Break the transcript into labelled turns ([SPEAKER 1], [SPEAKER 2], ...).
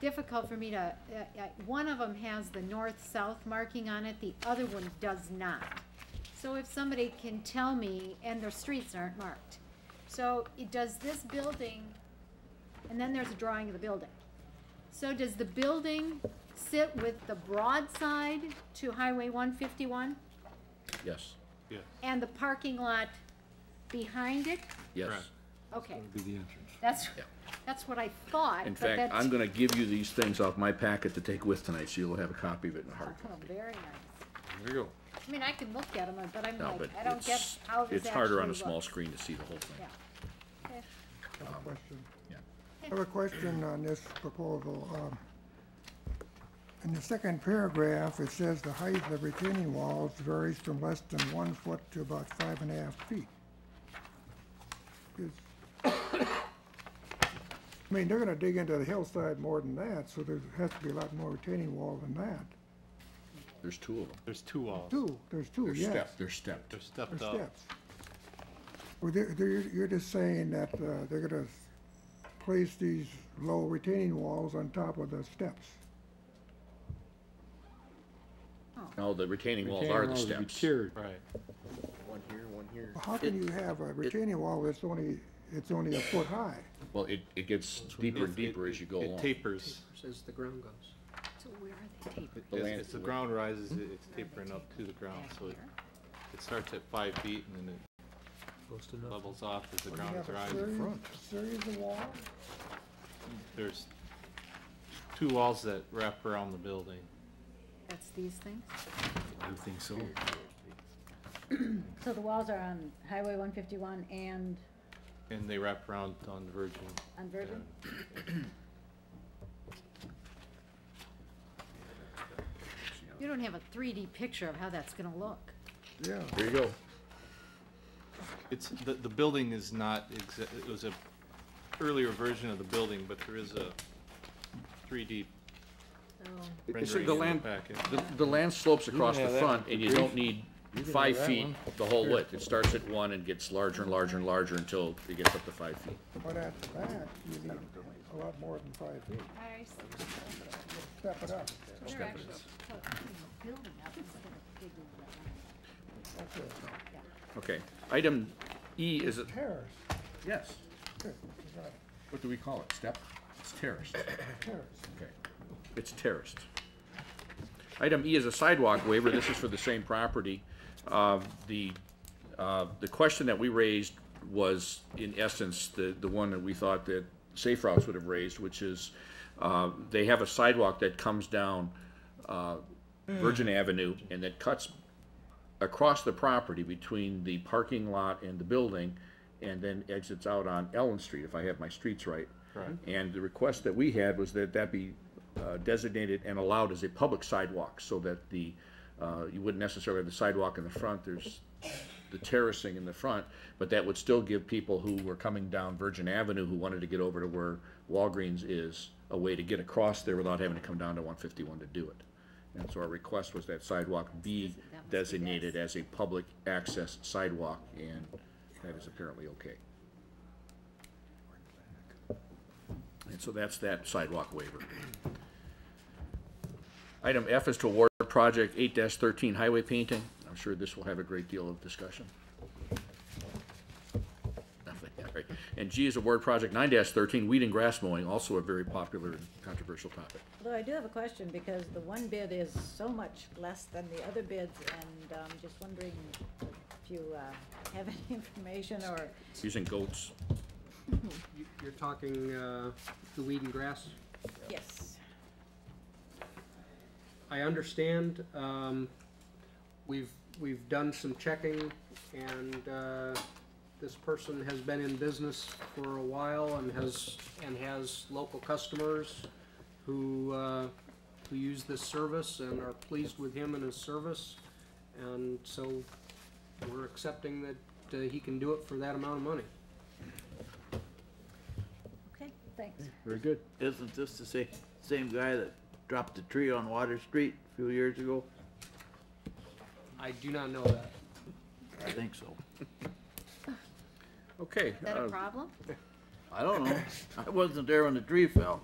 [SPEAKER 1] difficult for me to, uh, uh, one of them has the north-south marking on it, the other one does not. So if somebody can tell me, and their streets aren't marked, so it does this building, and then there's a drawing of the building. So does the building sit with the broad side to Highway one fifty-one,
[SPEAKER 2] Yes,
[SPEAKER 3] Yes.
[SPEAKER 1] and the parking lot behind it?
[SPEAKER 2] yes.
[SPEAKER 3] Correct.
[SPEAKER 1] Okay,
[SPEAKER 4] Be the entrance.
[SPEAKER 1] that's,
[SPEAKER 2] Yeah.
[SPEAKER 1] that's what I thought,
[SPEAKER 2] In
[SPEAKER 1] but that's.
[SPEAKER 2] fact, I'm gonna give you these things off my packet to take with tonight, so you'll have a copy of it in a hard
[SPEAKER 1] Oh,
[SPEAKER 2] copy.
[SPEAKER 1] very nice.
[SPEAKER 3] There you go.
[SPEAKER 1] I mean, I can look at them, but I'm
[SPEAKER 2] No,
[SPEAKER 1] like,
[SPEAKER 2] but
[SPEAKER 1] I don't get
[SPEAKER 2] it's,
[SPEAKER 1] how this
[SPEAKER 2] it's harder on a
[SPEAKER 1] actually
[SPEAKER 2] small
[SPEAKER 1] looks.
[SPEAKER 2] screen to see the whole thing.
[SPEAKER 1] Yeah. Okay.
[SPEAKER 5] I have a question.
[SPEAKER 2] Yeah.
[SPEAKER 5] I have a question on this proposal. Um, In the second paragraph, it says the height of the retaining walls varies from less than one foot to about five and a half feet. Is- I mean, they're gonna dig into the hillside more than that, so there has to be a lot more retaining wall than that.
[SPEAKER 2] There's two of them.
[SPEAKER 3] There's two walls.
[SPEAKER 5] Two, there's two,
[SPEAKER 2] They're
[SPEAKER 5] yes.
[SPEAKER 2] stepped, they're stepped.
[SPEAKER 3] They're stepped
[SPEAKER 5] There's
[SPEAKER 3] up.
[SPEAKER 5] steps. Well, they're, they're, you're just saying that, uh, they're gonna place these low retaining walls on top of the steps.
[SPEAKER 2] No, Oh, the retaining walls
[SPEAKER 4] Retaining
[SPEAKER 2] are the
[SPEAKER 4] walls would be
[SPEAKER 2] steps.
[SPEAKER 4] tiered.
[SPEAKER 3] Right.
[SPEAKER 2] One here, one here.
[SPEAKER 5] How can you have a retaining wall that's only, it's only a foot high?
[SPEAKER 2] Well, it, it gets deeper and
[SPEAKER 3] It-
[SPEAKER 2] deeper
[SPEAKER 3] it-
[SPEAKER 2] as you go
[SPEAKER 3] It
[SPEAKER 2] along.
[SPEAKER 3] tapers.
[SPEAKER 6] as the ground goes.
[SPEAKER 1] So where are they taped?
[SPEAKER 3] As,
[SPEAKER 2] land-
[SPEAKER 3] as the ground rises,
[SPEAKER 5] Hmm?
[SPEAKER 3] it- it's tapering up to the ground,
[SPEAKER 1] Back
[SPEAKER 3] so it,
[SPEAKER 1] here.
[SPEAKER 3] it starts at five feet and then it
[SPEAKER 6] Goes to nothing.
[SPEAKER 3] levels off as the
[SPEAKER 5] When you
[SPEAKER 3] ground
[SPEAKER 5] have
[SPEAKER 3] is
[SPEAKER 5] a
[SPEAKER 3] rising.
[SPEAKER 5] Series series of walls?
[SPEAKER 3] There's two walls that wrap around the building.
[SPEAKER 1] That's these things?
[SPEAKER 4] I think so.
[SPEAKER 7] So the walls are on Highway one fifty-one and
[SPEAKER 3] And they wrap around on the Virgin.
[SPEAKER 7] on Virgin?
[SPEAKER 1] You don't have a three D picture of how that's gonna look.
[SPEAKER 5] Yeah,
[SPEAKER 2] There you go.
[SPEAKER 3] It's, the, the building is not exa, it was a earlier version of the building, but there is a three D
[SPEAKER 2] It's-
[SPEAKER 3] rendering
[SPEAKER 2] the
[SPEAKER 3] in the
[SPEAKER 2] land-
[SPEAKER 3] packet.
[SPEAKER 2] The, the land slopes across
[SPEAKER 4] have
[SPEAKER 2] the
[SPEAKER 4] that
[SPEAKER 2] front
[SPEAKER 4] one.
[SPEAKER 2] and you don't
[SPEAKER 4] Grief.
[SPEAKER 2] need
[SPEAKER 4] can
[SPEAKER 2] five
[SPEAKER 4] have that
[SPEAKER 2] feet
[SPEAKER 4] one.
[SPEAKER 2] of the whole width. It starts at one and gets larger and larger and larger until it gets up to five feet.
[SPEAKER 5] but at the back, you need a lot more than five feet.
[SPEAKER 1] I see.
[SPEAKER 5] Step it up.
[SPEAKER 1] They're actually building up instead of digging it
[SPEAKER 5] That's a
[SPEAKER 2] Okay, item E is, a-
[SPEAKER 5] terrace.
[SPEAKER 2] yes,
[SPEAKER 5] Good, you got it.
[SPEAKER 2] what do we call it, step? It's terraced.
[SPEAKER 5] Terrace.
[SPEAKER 2] Okay, it's terraced. Item E is a sidewalk waiver, this is for the same property. Uh, The, uh, the question that we raised was, in essence, the, the one that we thought that Safe Routes would have raised, which is, uh, they have a sidewalk that comes down uh, Virgin Avenue and that cuts across the property between the parking lot and the building, and then exits out on Ellen Street, if I have my streets right.
[SPEAKER 3] Correct.
[SPEAKER 2] And the request that we had was that that be uh, designated and allowed as a public sidewalk, so that the, uh, you wouldn't necessarily have the sidewalk in the front, there's the terracing in the front, but that would still give people who were coming down Virgin Avenue who wanted to get over to where Walgreens is, a way to get across there without having to come down to one fifty-one to do it. And so our request was that sidewalk
[SPEAKER 1] That
[SPEAKER 2] be
[SPEAKER 1] must be
[SPEAKER 2] designated as a public access sidewalk, and that is apparently okay. And so that's that sidewalk waiver. Item F is to award project eight thirteen highway painting. I'm sure this will have a great deal of discussion. Nothing, all right. And G is award project nine thirteen, weed and grass mowing, also a very popular and controversial topic.
[SPEAKER 7] Although I do have a question, because the one bid is so much less than the other bids, and um just wondering if you uh, have any information or,
[SPEAKER 2] Using goats,
[SPEAKER 6] You- You're talking uh, the weed and grass.
[SPEAKER 7] yes.
[SPEAKER 6] I understand, um, we've, we've done some checking, and uh, this person has been in business for a while and has, and has local customers who, uh, who use this service and are pleased with him and his service. And so we're accepting that uh, he can do it for that amount of money.
[SPEAKER 7] Okay, thanks.
[SPEAKER 4] Very good.
[SPEAKER 8] Isn't this the same, same guy that dropped the tree on Water Street a few years ago?
[SPEAKER 6] I do not know that.
[SPEAKER 8] I think so.
[SPEAKER 2] okay.
[SPEAKER 1] Is that
[SPEAKER 2] uh,
[SPEAKER 1] a problem?
[SPEAKER 8] I don't know. I wasn't there when the tree fell.